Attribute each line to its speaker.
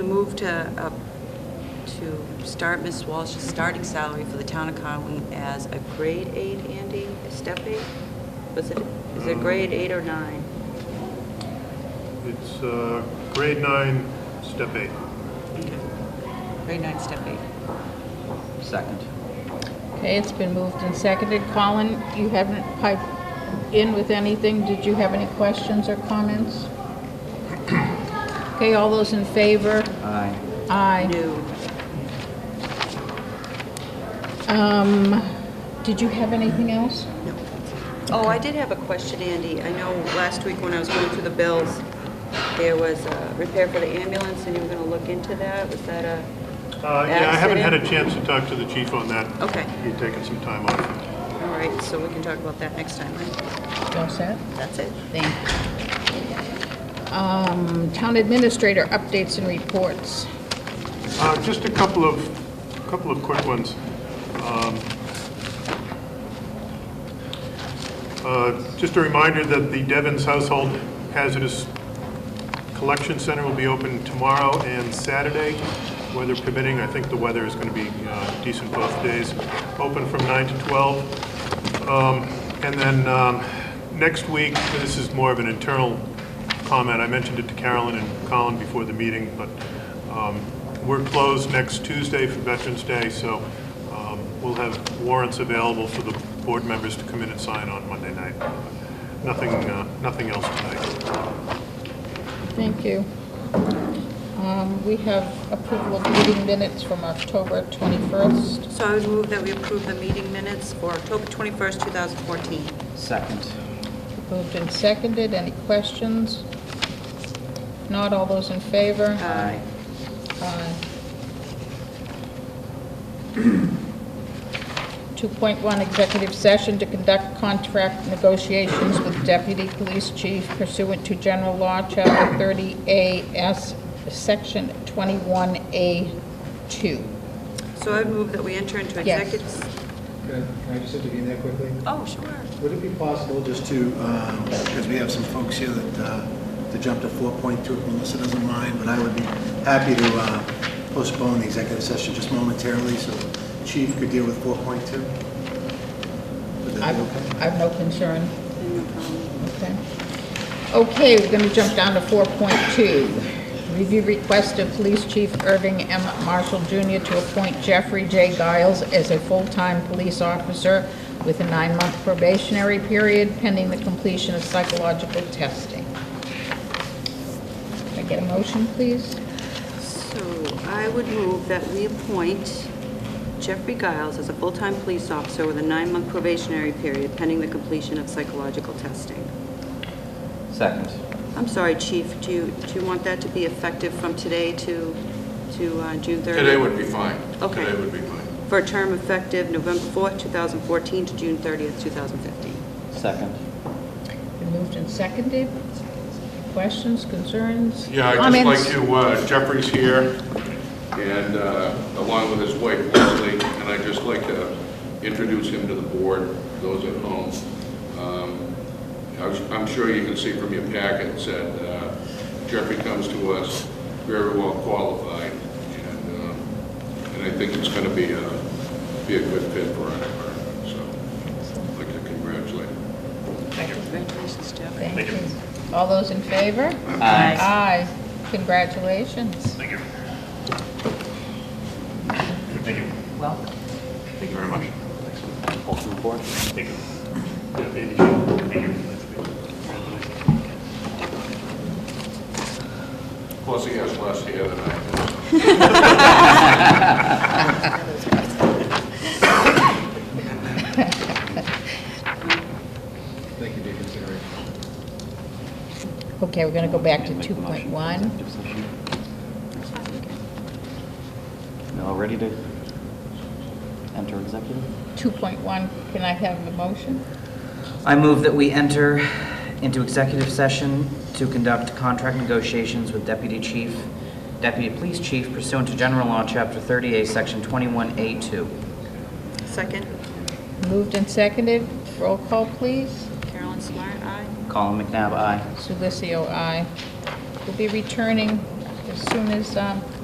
Speaker 1: move to, uh, to start Ms. Walsh's starting salary for the town of Conway as a grade eight, Andy, a step eight? Was it, is it grade eight or nine?
Speaker 2: It's uh, grade nine, step eight.
Speaker 1: Grade nine, step eight.
Speaker 3: Second.
Speaker 4: Okay, it's been moved and seconded. Colin, you haven't piped in with anything. Did you have any questions or comments? Okay, all those in favor?
Speaker 3: Aye.
Speaker 4: Aye.
Speaker 1: New.
Speaker 4: Um, did you have anything else?
Speaker 1: Oh, I did have a question, Andy. I know last week when I was going through the bills, there was a repair for the ambulance, and you were going to look into that. Was that a,
Speaker 2: Uh, Yeah, I haven't had a
Speaker 1: Accident.
Speaker 2: chance to talk to the chief on that.
Speaker 1: Okay.
Speaker 2: He's taken some time off.
Speaker 1: all right, so we can talk about that next time, right?
Speaker 4: All set?
Speaker 1: That's it.
Speaker 4: Thank you. Um, town administrator updates and reports.
Speaker 2: Uh, Just a couple of, couple of quick ones. Um, uh, Just a reminder that the Devon's Household Hazardous Collection Center will be open tomorrow and Saturday, weather permitting. I think the weather is going to be uh, decent both days. Open from 9 to 12. Um, And then um, next week, this is more of an internal comment. I mentioned it to Carolyn and Colin before the meeting, but um, we're closed next Tuesday for Veterans Day, so um, we'll have warrants available for the board members to come in and sign on Monday night. Nothing, uh, nothing else tonight.
Speaker 4: Thank you. Um, we have approval of meeting minutes from October 21st.
Speaker 1: So I would move that we approve the meeting minutes for October 21st, 2014.
Speaker 3: Second.
Speaker 4: Moved and seconded. Any questions? If Not all those in favor?
Speaker 3: Aye.
Speaker 4: Aye. 2.1, executive session to conduct contract negotiations with deputy police chief pursuant to general law, chapter 30A S, section 21A2.
Speaker 1: So I would move that we enter into
Speaker 4: Yes.
Speaker 1: executive...
Speaker 5: Can I- can I just intervene there quickly?
Speaker 1: Oh, sure.
Speaker 5: Would it be possible just to, um, because we have some folks here that, uh, to jump to 4.2, if Melissa doesn't mind, but I would be happy to uh, postpone the executive session just momentarily so Chief could deal with 4.2? Would that be okay?
Speaker 4: I've, I've no concern. Okay. Okay, we're going to jump down to 4.2. Review request of Police Chief Irving M. Marshall Jr. to appoint Jeffrey J. Giles as a full-time police officer with a nine-month probationary period pending the completion of psychological testing. Can I get a motion, please?
Speaker 1: So I would move that we appoint Jeffrey Giles as a full-time police officer with a nine-month probationary period pending the completion of psychological testing.
Speaker 3: Second.
Speaker 1: I'm sorry, Chief, do you, do you want that to be effective from today to, to uh, June 30th?
Speaker 6: Today would be fine.
Speaker 1: Okay.
Speaker 6: Today would be fine.
Speaker 1: For a term effective November 4th, 2014 to June 30th, 2015.
Speaker 3: Second.
Speaker 4: Been moved and seconded. Questions, concerns?
Speaker 6: Yeah, I'd just
Speaker 4: comments?
Speaker 6: like to, uh, Jeffrey's here, and uh, along with his wife Leslie, and I'd just like to introduce him to the board, those at home. Um, I was- I'm sure you can see from your packets that uh, Jeffrey comes to us very well qualified, and um, and I think it's going to be a, be a good fit for our department, so I'd like to congratulate him.
Speaker 1: Congratulations, Jeff.
Speaker 4: Thank you. All those in favor?
Speaker 3: Aye.
Speaker 4: Aye. Congratulations.
Speaker 2: Thank you. Thank you.
Speaker 3: Welcome.
Speaker 2: Thank you very much.
Speaker 3: Folks on the board.
Speaker 2: Thank you. Yeah, Andy, thank you.
Speaker 6: Plus, he has less hair than I do.
Speaker 5: Thank you for your consideration.
Speaker 4: Okay, we're going to go back to
Speaker 3: Make the motion for
Speaker 4: 2.1.
Speaker 3: executive session. Now, ready to enter executive?
Speaker 4: 2.1, can I have a motion?
Speaker 3: I move that we enter into executive session to conduct contract negotiations with Deputy Chief, Deputy Police Chief pursuant to General Law, Chapter 38, Section 21A2.
Speaker 1: Second,
Speaker 4: Moved and seconded. Roll call, please.
Speaker 1: Carolyn Smart, aye.
Speaker 3: Colin McNabb, aye.
Speaker 4: Sulicio, aye. We'll be returning as soon as um,